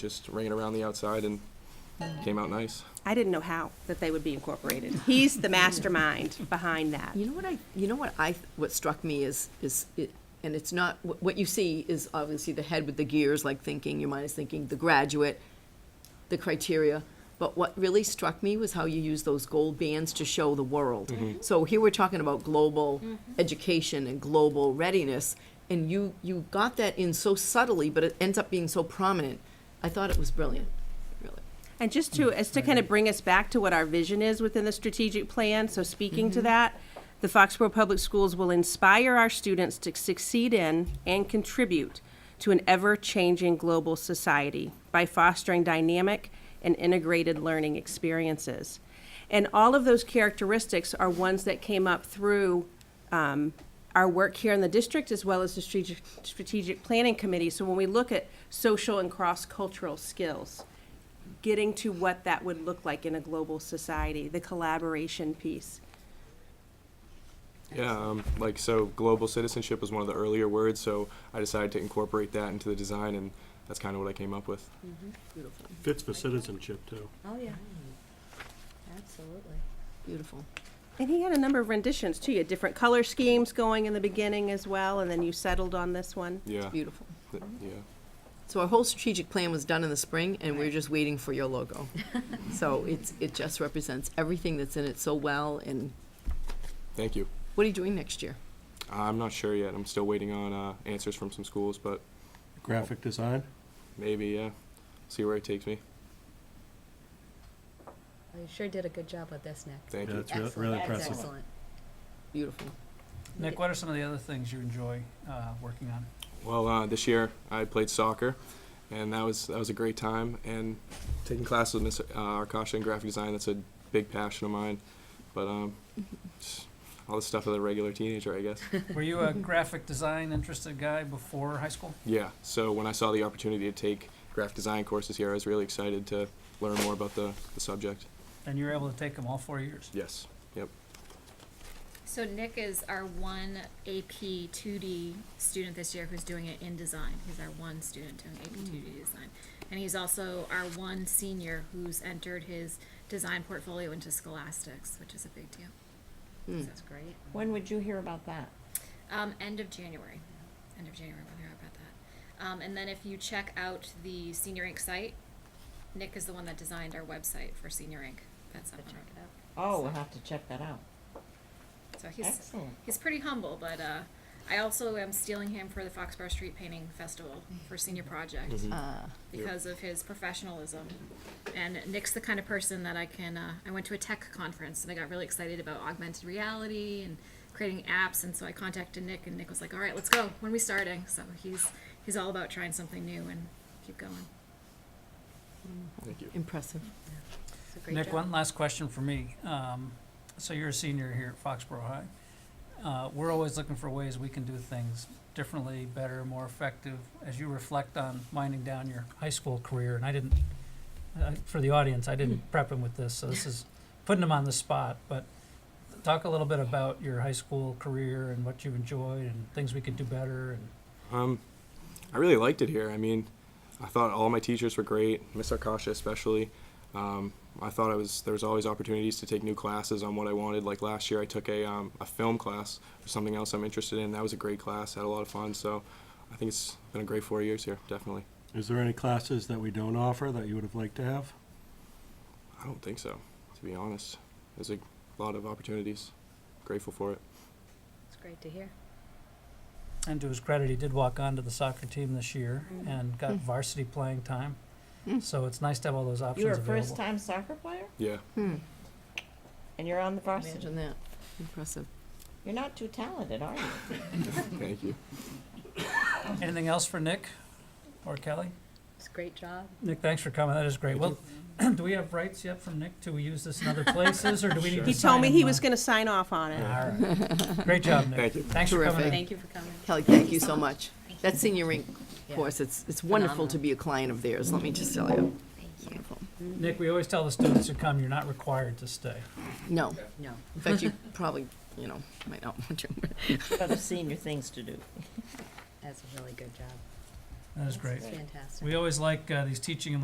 just ran around the outside and came out nice. I didn't know how that they would be incorporated. He's the mastermind behind that. You know what I, you know what I, what struck me is, is, it- and it's not, what what you see is obviously the head with the gears, like thinking, your mind is thinking, the graduate, the criteria. But what really struck me was how you use those gold bands to show the world. So here we're talking about global education and global readiness, and you, you got that in so subtly, but it ends up being so prominent. I thought it was brilliant, really. And just to, as to kind of bring us back to what our vision is within the strategic plan, so speaking to that, the Foxborough Public Schools will inspire our students to succeed in and contribute to an ever-changing global society by fostering dynamic and integrated learning experiences. And all of those characteristics are ones that came up through um, our work here in the district as well as the strategic, strategic planning committee. So when we look at social and cross-cultural skills, getting to what that would look like in a global society, the collaboration piece. Yeah, um, like so, global citizenship was one of the earlier words, so I decided to incorporate that into the design, and that's kind of what I came up with. Beautiful, Fits for citizenship, too. Oh, yeah. Absolutely. beautiful. And he had a number of renditions too. You had different color schemes going in the beginning as well, and then you settled on this one. Yeah, Beautiful. th- yeah. So our whole strategic plan was done in the spring, and we're just waiting for your logo. So it's, it just represents everything that's in it so well, and Thank you. what are you doing next year? I'm not sure yet. I'm still waiting on uh, answers from some schools, but Graphic design? maybe yeah. See where it takes me. Well, you sure did a good job with this, Nick. Thank Yeah, you. it's re- Excellent. really That's impressive. Excellent. Beautiful. Nick, what are some of the other things you enjoy uh, working on? Well, uh, this year I played soccer, and that was that was a great time. And taking classes with Miss uh, Arkasha in graphic design that's a big passion of mine. But um, just all the stuff of the regular teenager, I guess. Were you a graphic design interested guy before high school? yeah. So when I saw the opportunity to take graphic design courses here, I was really excited to learn more about the, the subject. And you were able to take them all four years? Yes. Yep. So Nick is our one AP 2D student this year who's doing it in design. He's our one student doing AP 2D design. And he's also our one senior who's entered his design portfolio into Scholastics, which is a big deal. So that's great. When would you hear about that? Um, end of January. End of January, we'll hear about that. Um, and then if you check out the Senior Inc. site, Nick is the one that designed our website for Senior Inc. That's up on our- Oh, we'll have to check that out. So he's Excellent. he's pretty humble, but uh, I also am stealing him for the Foxborough Street Painting Festival for senior project Mm-hmm. Uh, because of his professionalism. And Nick's the kind of person that I can. Uh, I went to a tech conference and I got really excited about augmented reality and creating apps, and so I contacted Nick, and Nick was like, "All right, let's go. When are we starting?" So he's he's all about trying something new and keep going. Thank you. Impressive. It's a great Nick, job. one last question for me. Um, So you're a senior here at Foxborough High. Uh, We're always looking for ways we can do things differently, better, more effective. As you reflect on winding down your high school career, and I didn't, I- for the audience, I didn't Hmm. prep him with this, so this is putting him on the spot. But talk a little bit about your high school career and what you enjoyed and things we could do better and Um, I really liked it here. I mean, I thought all my teachers were great, Miss Arkasha especially. Um, I thought I was there was always opportunities to take new classes on what I wanted. Like last year, I took a um, a film class or something else I'm interested in. That was a great class. Had a lot of fun. So, I think it's been a great four years here. Definitely. Is there any classes that we don't offer that you would have liked to have? I don't think so, to be honest. There's a lot of opportunities. Grateful for it. It's great to hear. And to his credit, he did walk on to the soccer team this year Mm-hmm. and got varsity playing time. Mm. So it's nice to have all those options You were a available. first-time soccer player, Yeah. hmm. and you're on the varsity. Imagine that. Impressive. You're not too talented, are you? Thank you. Anything else for Nick or Kelly? It's a great job. Nick, thanks for coming. That is great. Well, do we have rights yet from Nick? Do we use this in other places, or do we need to He told me he was gonna sign off on it. going to. Great job, Nick. Thank you. Thanks for coming. in. Terrific. Thank you for coming. Kelly, thank you so much. That senior rink course, it's, it's wonderful to be a client of theirs, let me just tell you. Wonderful. Nick, we always tell the students who come, you're not required to stay. No, No. in fact, you probably, you know, might not want to. Got other senior things to do. That's a really good job. That is great. Fantastic. We always like, uh, these teaching and